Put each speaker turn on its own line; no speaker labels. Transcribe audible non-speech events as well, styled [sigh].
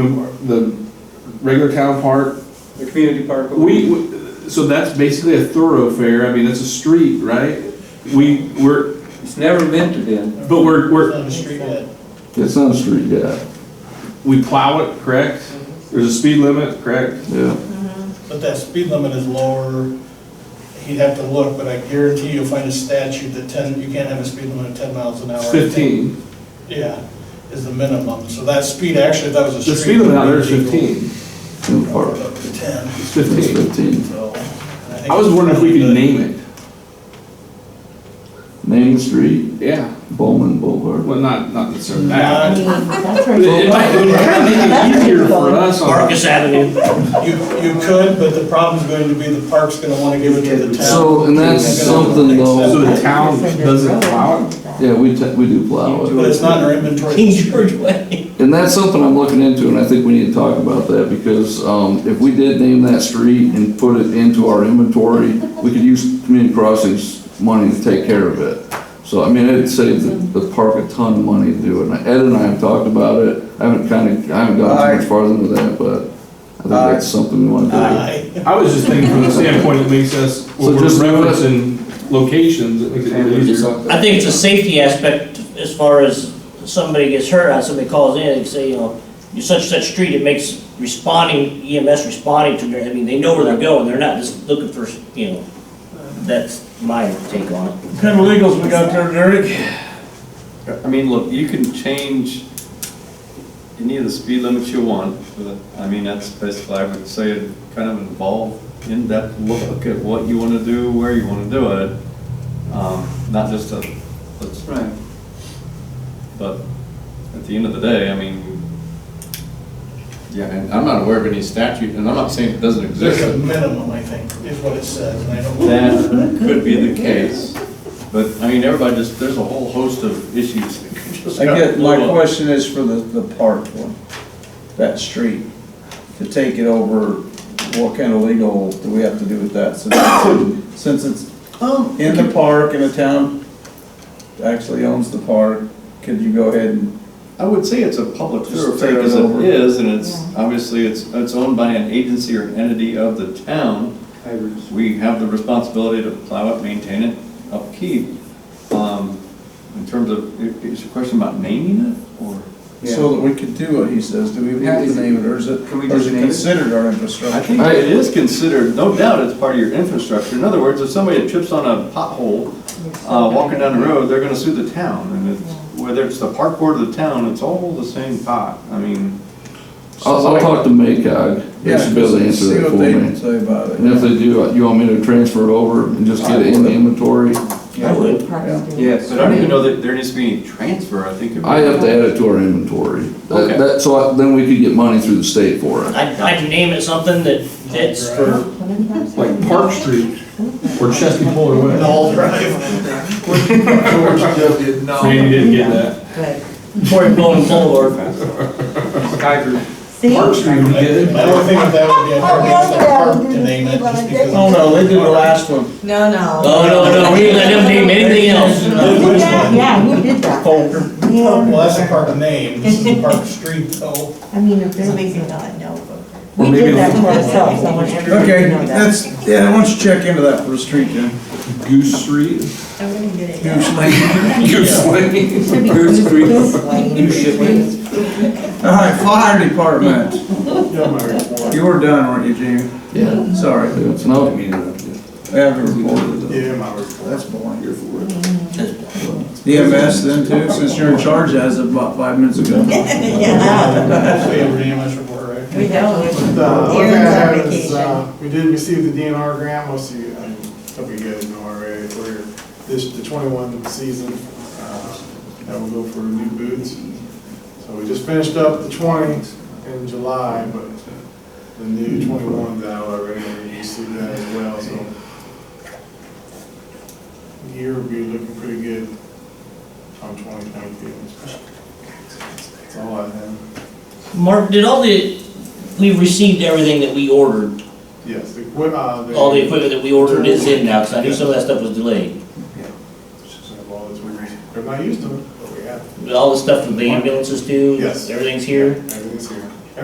mem- the regular town park,
the community park. but
we, we- so that's basically a thoroughfare, I mean, that's a street, right? We, we're,
It's never meant to be.
but we're, we're,
On the street yet.
It's on the street, yeah,
we plow it, correct? There's a speed limit, correct?
yeah.
But that speed limit is lower, he'd have to look, but I guarantee you'll find a statute that ten, you can't have a speed limit of ten miles an hour.
It's fifteen.
Yeah, is the minimum, so that speed, actually, that was a street.
The speed limit out there is
it'd be legal.
fifteen.
In the park.
Up to ten,
It's
It's
fifteen.
fifteen.
so. think
I was wondering if we could
it's-
name it.
Main Street,
Yeah,
Bowman Boulevard.
well, not, not necessarily
Nah,
that.
That's uh,
But It
right.
might, it might make it easier for us on,
Marcus Avenue.
You, you could, but the problem's going to be the park's gonna wanna give it to the town.
So, and that's something
so
though,
the town doesn't plow it?
yeah, we, ta- we do plow it.
But it's not in our inventory.
King George Way.
And that's something I'm looking into, and I think we need to talk about that, because, um, if we did name that street and put it into our inventory, we could use community crossings money to take care of it. So, I mean, it'd save the, the park a ton of money to do it, and Ed and I have talked about it, I haven't kinda, I haven't gotten too much farther into that, but I think that's something we wanna do.
Aye.
I was just thinking from the standpoint it makes us,
So
when we're
just-
referencing locations, it makes it a little easier.
I think it's a safety aspect as far as somebody gets hurt, or somebody calls in and say, you know, you such, such street, it makes responding, EMS responding to their, I mean, they know where they're going, they're not just looking for, you know, that's my take on it.
Kind of legals we got there, Derek?
I mean, look, you can change any of the speed limits you want, but, I mean, that's basically, I would say, kind of involve in-depth look at what you want to do, where you want to do it, um, not just a, let's-
Right.
but at the end of the day, I mean, yeah, and I'm not aware of any statute, and I'm not saying it doesn't
There's
exist,
a
[laughs]
but
minimum, I think, is what it says, and I don't.
that could be the case. But, I mean, everybody just, there's a whole host of issues that could just.
I get, my
blow up.
question is for the, the park one, that street, to take it over, what kind of legal do we have to do with that? Since- Since it's in the park and the town actually owns the park, could you go ahead and,
I would say it's a public
Just
thoroughfare
take it
as it
over.
is, and it's, obviously, it's, it's owned by an agency or an entity of the town. We have the responsibility to plow it, maintain it, upkeep. Um, In terms of, i- is your question about naming it, or?
so that we could do what he says, do we have to name it, or is it,
Can we
or is
just
it
name
[laughs]
it?
considered our
I
infrastructure?
think it is considered, no doubt it's part of your infrastructure. In other words, if somebody trips on a pothole, uh, walking down the road, they're gonna sue the town. And it's, whether it's the park board or the town, it's all the same pot. I mean.
I'll, I'll talk to MACOG, they should be able to answer
See
that for
what they
me.
say about it.
And if they do, uh, you want me to transfer it over and just get it in the inventory?
I would.
Yes.
But I don't even know that there needs to be any transfer, I think. it would-
I have to add it to our inventory. That,
Okay.
that- so I- then we could get money through the state for it.
I'd, I'd name it something that fits for
Like Park Street or Chesky Puller Way.
All drive.
Randy didn't get that.
Fort Golden Boulevard.
See?
Park Street, we get it.
I don't think that would be a problem with the park to name it, just because.
Oh, no, they did the last one.
No, no.
Oh, No, no, no, we didn't let them name anything else.
We did that, yeah, we did that.
Well,
Yeah,
that's a park name, this is a park street, though.
I mean, if there's reason not, no.
Or
We
maybe
did
a
that to
little-
ourselves, I want everybody
Okay,
to know that.
that's, yeah, why don't you check into that for the street, Jim?
Goose Street. [laughs]
I'm gonna get it.
Goose Lane.
Goose Street.
You
All right, fire department. You were done, weren't you, Jim?
Yeah.
Sorry,
Yeah, it's not-
I have a report.
Yeah, my report.
That's boring. EMS then too, since you're in charge as of about five minutes ago.
[laughs] Yeah,
That's the EMS report, right?
we know.
The one thing I
Aaron's on
have is,
vacation.
uh, we did receive the DNR grant, most of you, I mean, hope you guys know already, for this, the twenty-one season, uh, that will go for new boots. So we just finished up the twenty in July, but the new twenty-one that already, we received that as well, so. the Year will be looking pretty good on twenty twenty-two. That's all I have.
Mark, did all the, we received everything that we ordered,
Yes, the, equi- uh, the.
all the equipment that we ordered is in now, because I knew some of that stuff was delayed.
Well, it's weird. They're not used to it, but we have.
All the stuff that the ambulances do,
Yes.
everything's here.
Everything's here.